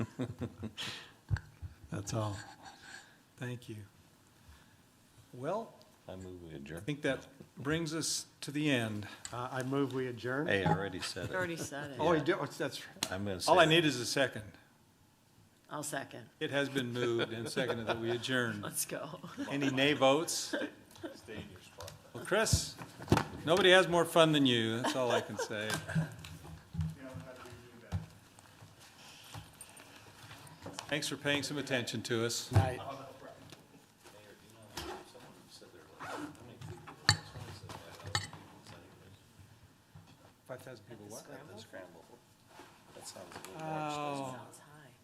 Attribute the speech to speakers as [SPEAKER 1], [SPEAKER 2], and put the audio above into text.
[SPEAKER 1] That's all. Thank you. Well,
[SPEAKER 2] I move we adjourn.
[SPEAKER 1] I think that brings us to the end.
[SPEAKER 3] Uh, I move we adjourn.
[SPEAKER 2] Hey, I already said it.
[SPEAKER 4] Already said it.
[SPEAKER 3] Oh, you do, oh, that's,
[SPEAKER 2] I'm gonna say.
[SPEAKER 1] All I
[SPEAKER 2] it.
[SPEAKER 1] need is a second.
[SPEAKER 4] I'll second.
[SPEAKER 1] It has been moved and seconded that we adjourn.
[SPEAKER 4] Let's go.
[SPEAKER 1] Any nay votes? Well, Chris, nobody has more fun than you, that's all I can say. Thanks for paying some attention to us.
[SPEAKER 3] night.
[SPEAKER 1] Five thousand people, what?
[SPEAKER 2] Scramble. That sounds a little
[SPEAKER 1] Oh,
[SPEAKER 4] Outside.